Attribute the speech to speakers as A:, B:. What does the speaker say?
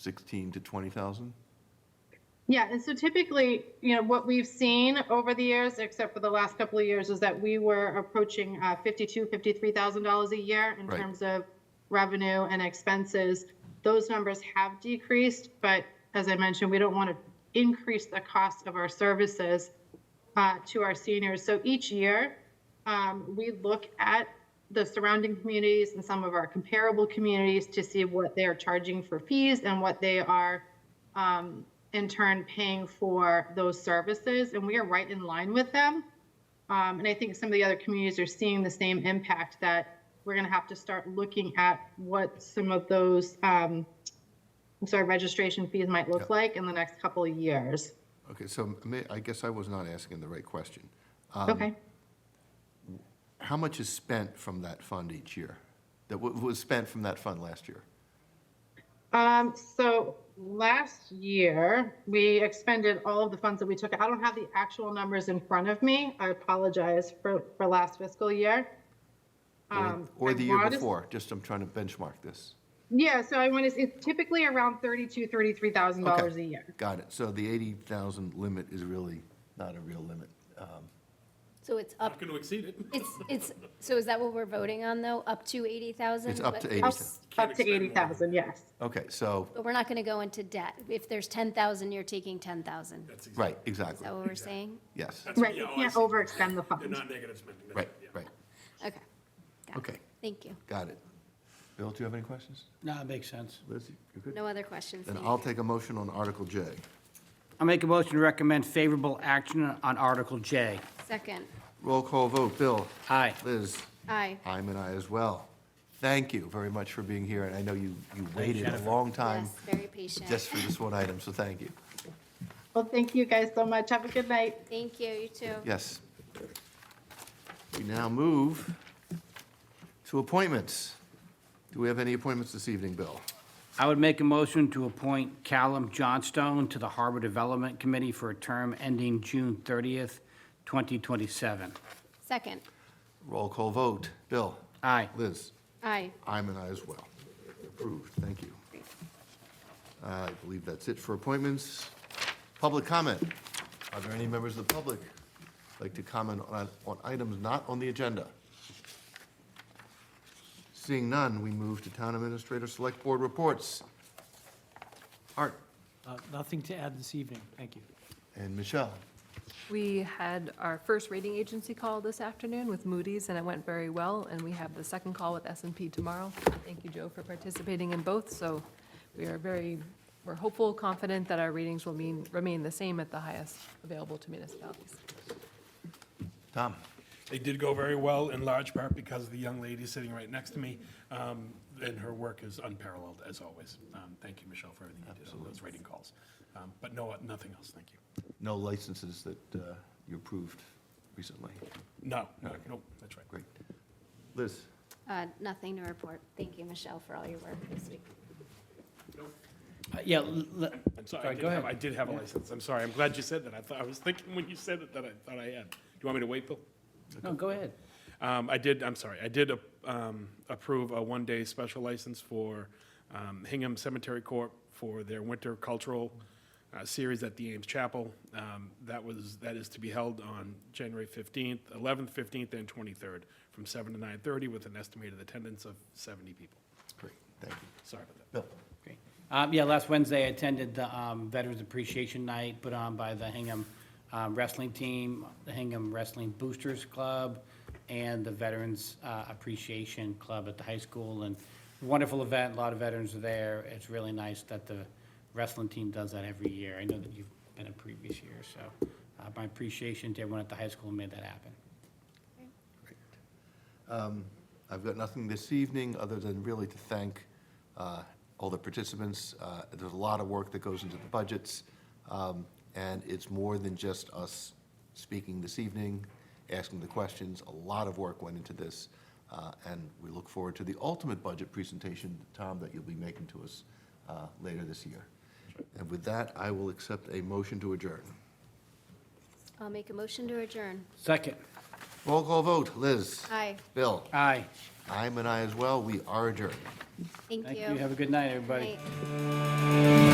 A: 16 to 20,000?
B: Yeah, and so typically, you know, what we've seen over the years, except for the last couple of years, is that we were approaching uh, fifty-two, fifty-three thousand dollars a year in
A: Right.
B: terms of revenue and expenses. Those numbers have decreased, but as I mentioned, we don't want to increase the cost of our services uh, to our seniors. So each year, um, we look at the surrounding communities and some of our comparable communities to see what they are charging for fees and what they are um, in turn paying for those services, and we are right in line with them. Um, and I think some of the other communities are seeing the same impact that we're going to have to start looking at what some of those, um, I'm sorry, registration fees might look like in the next couple of years.
C: Okay, so may, I guess I was not asking the right question.
B: okay.
C: How much is spent from that fund each year? That wa- was spent from that fund last year?
B: Um, so last year, we expended all of the funds that we took. I don't have the actual numbers in front of me. I apologize for, for last fiscal year.
C: Or-
B: Um,
C: Or
B: I
C: the year
B: wanna-
C: before? Just, I'm trying to benchmark this.
B: Yeah, so I want to, it's typically around thirty-two, thirty-three thousand dollars
C: Okay.
B: a year.
C: Got it. So the 80,000 limit is really not a real limit. Um,
D: So it's up,
E: Not going to exceed it.
D: it's, it's, so is that what we're voting on, though? Up to 80,000?
C: It's up to
D: But-
C: 80,000.
E: Can't
B: Up to
E: expend
B: eighty
E: more.
B: thousand, yes.
C: Okay, so,
D: But we're not going to go into debt. If there's 10,000, you're taking 10,000. Is
E: That's exactly-
C: right, exactly,
D: that what we're saying?
C: yes.
E: that's-
B: Right,
E: yeah,
B: you
E: oh, I
B: can't
E: see.
B: overextend the
E: They're
B: fund.
E: not negative spending. that's
C: Right,
E: yeah.
C: right,
D: Okay. Got it.
C: Okay.
D: Thank you.
C: got it. Bill, do you have any questions?
F: No, it makes sense.
C: Liz, you good?
D: No other questions?
C: Then
D: Thank
C: I'll
D: you.
C: take a motion on Article J.
F: I'll make a motion to recommend favorable action on Article J.
D: Second.
C: Roll call vote, Bill?
F: Aye.
C: Liz?
D: Aye.
C: I'm an aye as well. Thank you very much for being here, and I know you, you waited a
F: Jennifer.
C: long time
D: Yes, very patient.
C: just for this one item, so thank you.
B: Well, thank you guys so much. Have a good night.
D: Thank you, you too.
C: Yes. We now move to appointments. Do we have any appointments this evening, Bill?
F: I would make a motion to appoint Callum Johnstone to the Harbor Development Committee for a term ending June 30th, 2027.
D: Second.
C: Roll call vote. Bill?
F: Aye.
C: Liz?
D: Aye.
C: I'm an aye as well. Approved, thank you. I believe that's it for appointments. Public comment. Are there any members of the public like to comment on, on items not on the agenda? Seeing none, we move to Town Administrator Select Board reports. Art
G: Uh, Nothing to add this evening, thank you.
C: and Michelle.
H: We had our first rating agency call this afternoon with Moody's, and it went very well, and we have the second call with s and P tomorrow. Thank you, Joe, for participating in both, so we are very, we're hopeful, confident that our ratings will mean, remain the same at the highest available to municipalities.
C: Tom.
E: They did go very well, in large part because the young lady sitting right next to me, um, and her work is unparalleled, as always. Um, Thank you, Michelle, for everything you did on those rating calls. Um, But no, nothing else, thank you.
C: No licenses that uh, you approved recently.
E: No, no, no, that's right.
C: Great. Liz?
D: Uh, Nothing to report. Thank you, Michelle, for all your work this week.
F: Uh, Yeah, l- l-
E: I'm sorry, I did
F: go
E: have, I
F: ahead.
E: did have a license, I'm sorry, I'm glad you said that. I thought, I was thinking when you said it that I thought I had. Do you want me to wait, Bill?
F: No, go ahead.
E: Um, I did, I'm sorry, I did um, approve a one-day special license for um, Hingham Cemetery Corp. for their winter cultural uh, series at the Ames Chapel. Um, That was, that is to be held on January 15th, 11th, 15th, and 23rd, from 7 to 9:30 with an estimated attendance of 70 people.
C: Great, thank you.
E: Sorry about that.
C: Bill?
F: Great. Um, Yeah, last Wednesday, I attended the um, Veterans Appreciation Night put on by the Hingham um, Wrestling Team, the Hingham Wrestling Boosters Club, and the Veterans uh, Appreciation Club at the high school. And wonderful event, a lot of veterans are there. It's really nice that the wrestling team does that every year. I know that you've been a previous year, so uh, my appreciation to everyone at the high school who made that happen.
C: I've got nothing this evening, other than really to thank uh, all the participants. Uh, There's a lot of work that goes into the budgets, um, and it's more than just us speaking this evening, asking the questions. A lot of work went into this, uh, and we look forward to the ultimate budget presentation, Tom, that you'll be making to us uh, later this year. And with that, I will accept a motion to adjourn.
D: I'll make a motion to adjourn.
F: Second,
C: Roll call vote, Liz.
D: Aye.
C: Bill.
F: aye.
C: I'm an aye as well. We are adjourned.
D: Thank you.
F: Have a good night, everybody.
D: Night.